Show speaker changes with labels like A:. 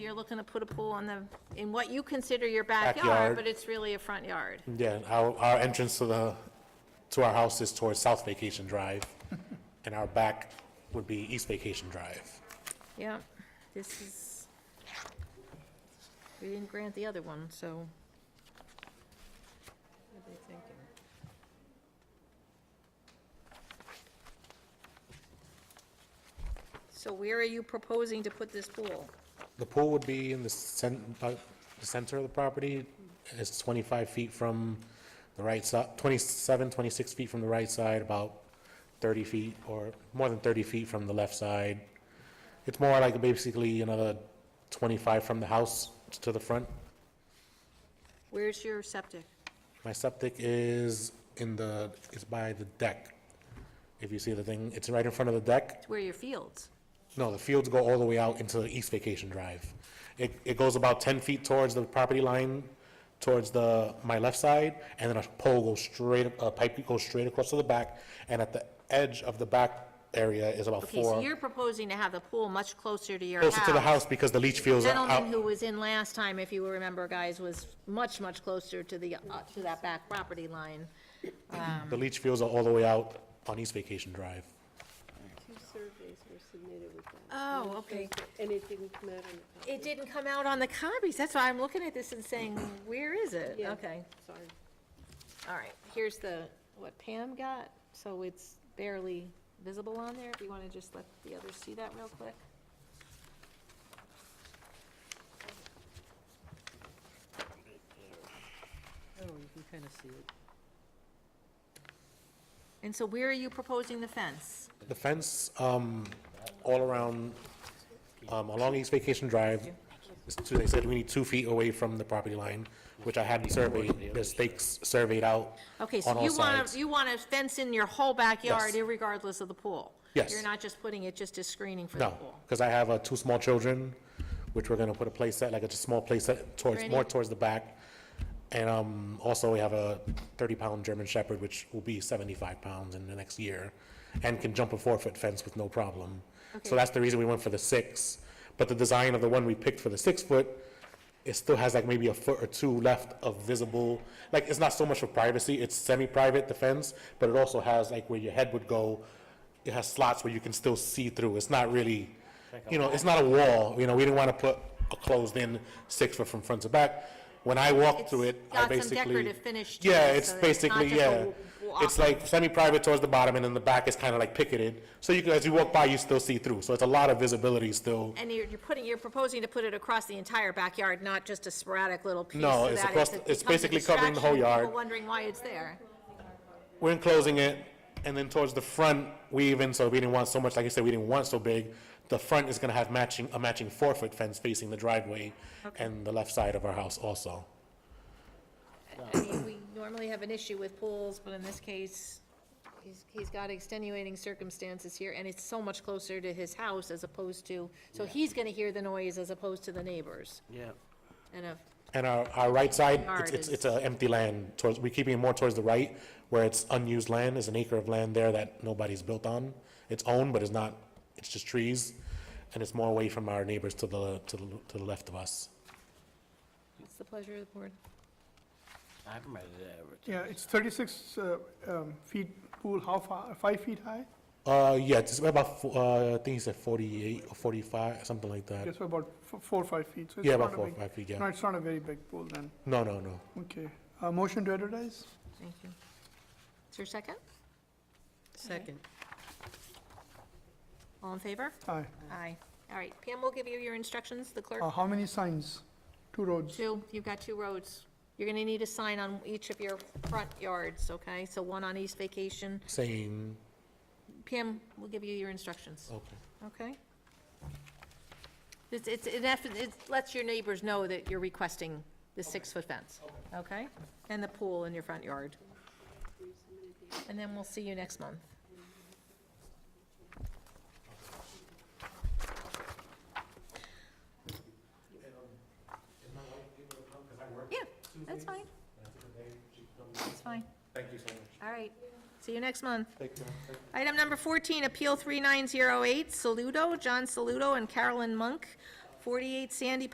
A: you're looking to put a pool on the, in what you consider your backyard,
B: Backyard. Mm.
A: but it's really a front yard.
B: Yeah, our, our entrance to the, to our house is towards South Vacation Drive, and our back would be East Vacation Drive.
A: Yeah, this is, we didn't grant the other one, so. What are they thinking? So where are you proposing to put this pool?
B: The pool would be in the cen, uh, the center of the property, it's twenty-five feet from the right side, 27, 26 feet from the right side, about thirty feet, or more than thirty feet from the left side. It's more like basically another twenty-five from the house to the front.
A: Where's your septic?
B: My septic is in the, it's by the deck. If you see the thing, it's right in front of the deck.
A: It's where your fields.
B: No, the fields go all the way out into East Vacation Drive. It, it goes about ten feet towards the property line, towards the, my left side, and then a pole goes straight, a pipe goes straight across to the back, and at the edge of the back area is about
A: Okay, so
B: four.
A: you're proposing to have the pool much closer to your house.
B: Closer to the house because the leach fields are
A: Gentleman who
B: out.
A: was in last time, if you remember, guys, was much, much closer to the, uh, to that back property line.
B: The leach fields are all the way out on East Vacation Drive.
C: Two surveys were submitted with that.
A: Oh,
C: And it didn't come out on the copy.
A: It didn't come out on the copies, that's why I'm looking at this and saying, where is it?
C: Yeah,
A: Okay,
C: Sorry.
A: all right, here's the, what Pam got, so it's barely visible on there, if you wanna just let the others see that real quick.
D: Oh, you can kind of see it.
A: And so where are you proposing the fence?
B: The fence, um, all around, um, along East Vacation Drive, is two- they said we need two feet away from the property line, which I had surveyed, the stakes surveyed out
A: Okay,
B: on
A: so
B: all
A: you wanna,
B: sides.
A: you wanna fence in your whole backyard
B: Yes.
A: regardless of the pool?
B: Yes.
A: You're not just putting it just as screening for the
B: No,
A: pool?
B: because I have, uh, two small children, which we're gonna put a playset, like a just small playset towards, more
A: Ready?
B: towards the back. And, um, also we have a thirty-pound German Shepherd, which will be seventy-five pounds in the next year, and can jump a four-foot fence with no problem.
A: Okay.
B: So that's the reason we went for the six, but the design of the one we picked for the six-foot, it still has like maybe a foot or two left of visible, like, it's not so much for privacy, it's semi-private, the fence, but it also has like where your head would go, it has slots where you can still see through, it's not really, you know, it's not a wall, you know, we didn't want to put a closed-in six-foot from front to back. When I walk through it,
A: It's
B: I
A: got some
B: basically.
A: decorative finish to
B: Yeah,
A: it,
B: it's
A: so that it's not
B: basically,
A: just a
B: yeah,
A: w-
B: it's like semi-private towards the bottom, and then the back is kind of like picketed, so you, can- as you walk by, you still see through, so it's a lot of visibility still.
A: And you're, you're putting, you're proposing to put it across the entire backyard, not just a sporadic little piece?
B: No,
A: so
B: it's
A: that
B: across-
A: it becomes
B: it's
A: a
B: basically covering the whole
A: distraction, people
B: yard.
A: wondering why it's there.
B: We're enclosing it, and then towards the front, we even, so we didn't want so much, like I said, we didn't want so big. The front is gonna have matching, a matching four-foot fence facing the driveway and the left side of our house also.
A: I mean, we normally have an issue with pools, but in this case, he's, he's got extenuating circumstances here, and it's so much closer to his house as opposed to, so he's gonna hear the noise as opposed to the neighbors.
D: Yeah.
A: And uh, if,
B: And our, our right side,
A: Yard
B: it's, it's,
A: is-
B: it's a empty land towards, we're keeping it more towards the right, where it's unused land, there's an acre of land there that nobody's built on. It's owned, but it's not, it's just trees, and it's more away from our neighbors to the, to the, to the left of us.
A: it's the pleasure of the board.
D: I've read it
E: Yeah, it's 36 uh, um, feet pool, how far, five feet high?
B: Uh, yeah, it's about, fo- uh, I think he said forty-eight or forty-five, something like that.
E: It's about f- four, or five feet. so it's
B: Yeah, about
E: not a
B: four, or
E: big-
B: five feet,
E: No,
B: yeah.
E: it's not a very big pool then,
B: No, no, no.
E: okay. Uh, Motion to advertise?
A: Thank you. Is there a second?
D: Second.
A: All in favor?
E: Aye.
A: Aye. All right, Pam will give you your instructions, the clerk.
E: Uh, How many signs? Two roads?
A: Two, you've got two roads. You're gonna need a sign on each of your front yards, okay? So one on East Vacation.
B: Same,
A: Pam will give you your instructions,
B: okay.
A: okay? It's, it's, it eff- it lets your neighbors know that you're requesting the six-foot fence, okay? And the pool in your front yard. And then we'll see you next month. Yeah, that's fine. That's fine.
B: Thank you so much.
A: All right, see you next month. Item number 14, Appeal 3908, Saludo, John Saludo and Carolyn Monk, 48 Sandy